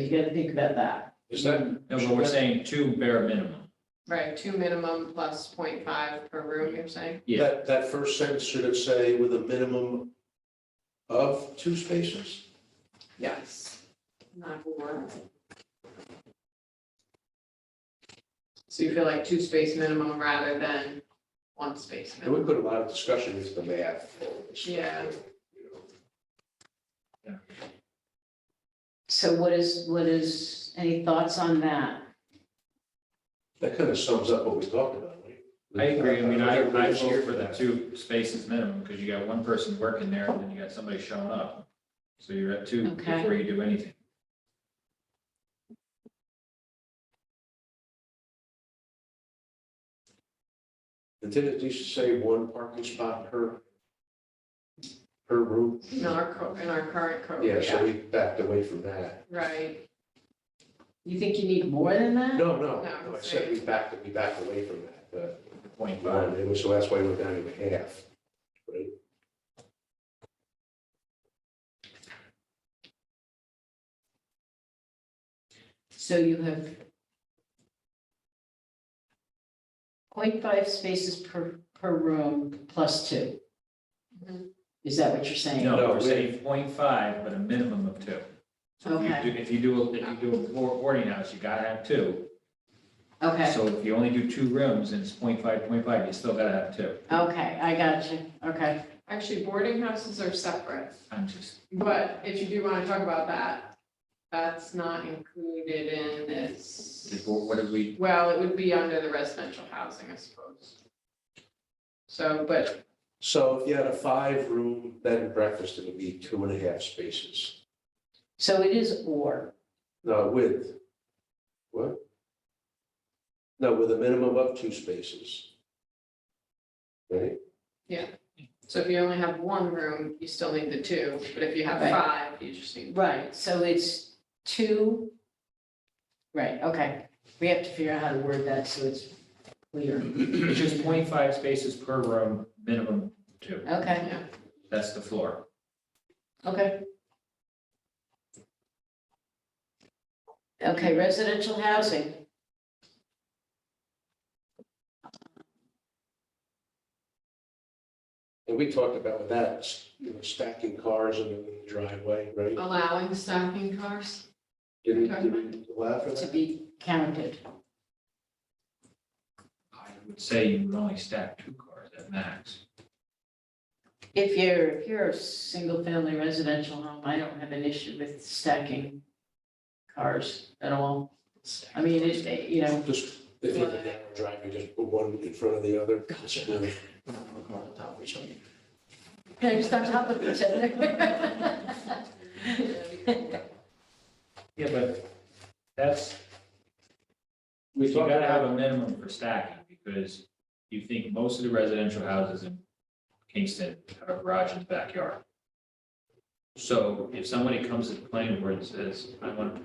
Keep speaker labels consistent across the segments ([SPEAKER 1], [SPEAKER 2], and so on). [SPEAKER 1] You gotta think about that.
[SPEAKER 2] Is that,
[SPEAKER 3] No, but we're saying two bare minimum.
[SPEAKER 4] Right, two minimum plus 0.5 per room, you're saying?
[SPEAKER 3] Yeah.
[SPEAKER 2] that, that first sentence should it say with a minimum of two spaces?
[SPEAKER 4] Yes. Not four. So you feel like two space minimum rather than one space
[SPEAKER 2] And
[SPEAKER 4] minimum?
[SPEAKER 2] we put a lot of discussion into the math.
[SPEAKER 4] Yeah.
[SPEAKER 1] So what is, what is, any thoughts on that?
[SPEAKER 2] That kind of sums up what we talked about, right?
[SPEAKER 3] I agree, I mean, I, I
[SPEAKER 2] Everybody's
[SPEAKER 3] cheer
[SPEAKER 2] over
[SPEAKER 3] for the
[SPEAKER 2] that.
[SPEAKER 3] two spaces minimum, because you got one person working there, and then you got somebody showing up. So you're at two
[SPEAKER 1] Okay.
[SPEAKER 3] before you do anything.
[SPEAKER 2] And did it, you say one parking spot per, per room?
[SPEAKER 4] In our, co- in our current code,
[SPEAKER 2] Yeah, so
[SPEAKER 4] yeah,
[SPEAKER 2] we backed away from that.
[SPEAKER 4] right,
[SPEAKER 1] You think you need more than that?
[SPEAKER 2] No, no,
[SPEAKER 4] No,
[SPEAKER 2] no, I said we backed, we backed away from that, but,
[SPEAKER 3] Point five,
[SPEAKER 2] one, so that's why we're down to half. right?
[SPEAKER 1] So you have 0.5 spaces per, per room plus two.
[SPEAKER 4] Mhm.
[SPEAKER 1] Is that what you're saying?
[SPEAKER 3] no,
[SPEAKER 2] No,
[SPEAKER 3] we're
[SPEAKER 2] we-
[SPEAKER 3] saying point five, but a minimum of two. So if
[SPEAKER 1] Okay.
[SPEAKER 3] you do, if you do, if you do a bo- boarding house, you gotta have two.
[SPEAKER 1] Okay,
[SPEAKER 3] So if you only do two rooms, and it's point five, point five, you still gotta have two.
[SPEAKER 1] okay, I got you, okay.
[SPEAKER 4] actually boarding houses are separate,
[SPEAKER 3] I'm just,
[SPEAKER 4] but if you do wanna talk about that, that's not included in
[SPEAKER 3] the
[SPEAKER 4] this.
[SPEAKER 3] bo- what did we,
[SPEAKER 4] Well, it would be under the residential housing, I suppose. So, but,
[SPEAKER 2] So if you had a five-room bed and breakfast, it would be two and a half spaces,
[SPEAKER 1] So it is or,
[SPEAKER 2] no, with, what? No, with a minimum of two spaces. Right?
[SPEAKER 4] so if you only have one room, you still need the two, but if you have
[SPEAKER 1] Right.
[SPEAKER 4] five, you just need.
[SPEAKER 1] right, so it's two. Right, okay. We have to figure out how to word that so it's clear.
[SPEAKER 3] it's just point five spaces per room, minimum two.
[SPEAKER 1] Okay,
[SPEAKER 3] That's the floor.
[SPEAKER 1] okay. Okay, residential housing.
[SPEAKER 2] And we talked about with that, you know, stacking cars in the driveway, right?
[SPEAKER 4] Oh, Allowing stacking cars?
[SPEAKER 2] Did we, did we allow for
[SPEAKER 1] to
[SPEAKER 2] that?
[SPEAKER 1] be counted.
[SPEAKER 3] I would say you would only stack two cars at max.
[SPEAKER 1] If you're, if you're a single-family residential home, I don't have an issue with stacking cars at all. I mean, it- it, you know,
[SPEAKER 2] Just, if you have a narrow drive, you just put one in front of the other.
[SPEAKER 1] can I stop talking to each other?
[SPEAKER 3] Yeah, but that's,
[SPEAKER 2] We
[SPEAKER 3] you
[SPEAKER 2] talked
[SPEAKER 3] gotta have
[SPEAKER 2] about,
[SPEAKER 3] a minimum for stacking, because you think most of the residential houses in Kingston have a garage in the backyard. So if somebody comes to the planning board and says, I want, to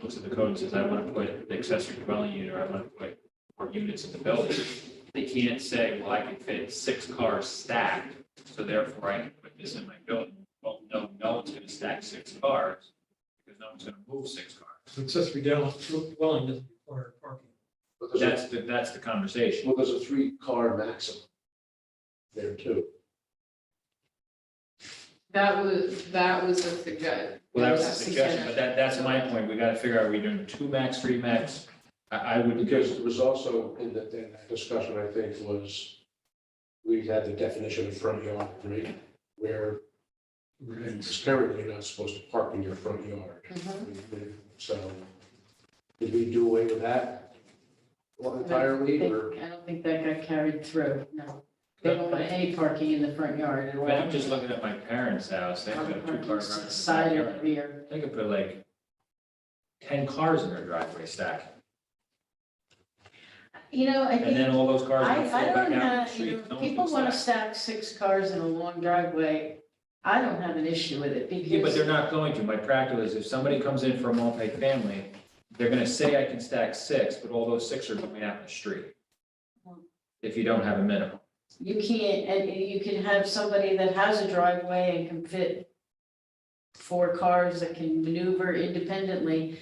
[SPEAKER 3] looks at the code and says, I want to put an accessory dwelling unit, or I want to put more units in the building, they can't say, well, I can fit six cars stacked, so therefore I can put this in my building. Well, no, no one's gonna stack six cars, because no one's gonna move six cars.
[SPEAKER 5] accessory dwelling dwelling doesn't require parking.
[SPEAKER 2] but there's a-
[SPEAKER 3] That's, the that's the conversation.
[SPEAKER 2] well, there's a three-car maximum there too.
[SPEAKER 4] That was, that was a suggestion.
[SPEAKER 3] Well, that was a
[SPEAKER 1] That's the
[SPEAKER 3] suggestion, but that, that's my point. We gotta figure out, are we doing two max, three max? I, I would,
[SPEAKER 2] Because it was also in the, in that discussion, I think, was we had the definition of front yard, right? Where it's currently you're not supposed to park in your front yard. So did we do away with that entirely or?
[SPEAKER 1] I don't think that got carried through, no. They don't want any parking in the front yard at all.
[SPEAKER 3] but I'm just looking at my parents' house. They've got two
[SPEAKER 1] Parking
[SPEAKER 3] cars.
[SPEAKER 1] to
[SPEAKER 3] around
[SPEAKER 1] the
[SPEAKER 3] the
[SPEAKER 1] Side or the
[SPEAKER 3] backyard.
[SPEAKER 1] rear.
[SPEAKER 3] They could put like ten cars in their driveway stack,
[SPEAKER 1] You know, I
[SPEAKER 3] and
[SPEAKER 1] think,
[SPEAKER 3] then all those cars
[SPEAKER 1] I,
[SPEAKER 3] would flow
[SPEAKER 1] I
[SPEAKER 3] back
[SPEAKER 1] don't
[SPEAKER 3] out
[SPEAKER 1] have,
[SPEAKER 3] to the
[SPEAKER 1] you
[SPEAKER 3] street. No
[SPEAKER 1] know,
[SPEAKER 3] one can
[SPEAKER 1] people want to stack
[SPEAKER 3] stack.
[SPEAKER 1] six cars in a long driveway. I don't have an issue with it because.
[SPEAKER 3] Yeah, but they're not going to. My practical is if somebody comes in for a multifamily, they're gonna say I can stack six, but all those six are going out in the street.
[SPEAKER 1] Mm.
[SPEAKER 3] If you don't have a minimum.
[SPEAKER 1] You can't, and you can have somebody that has a driveway and can fit four cars that can maneuver independently,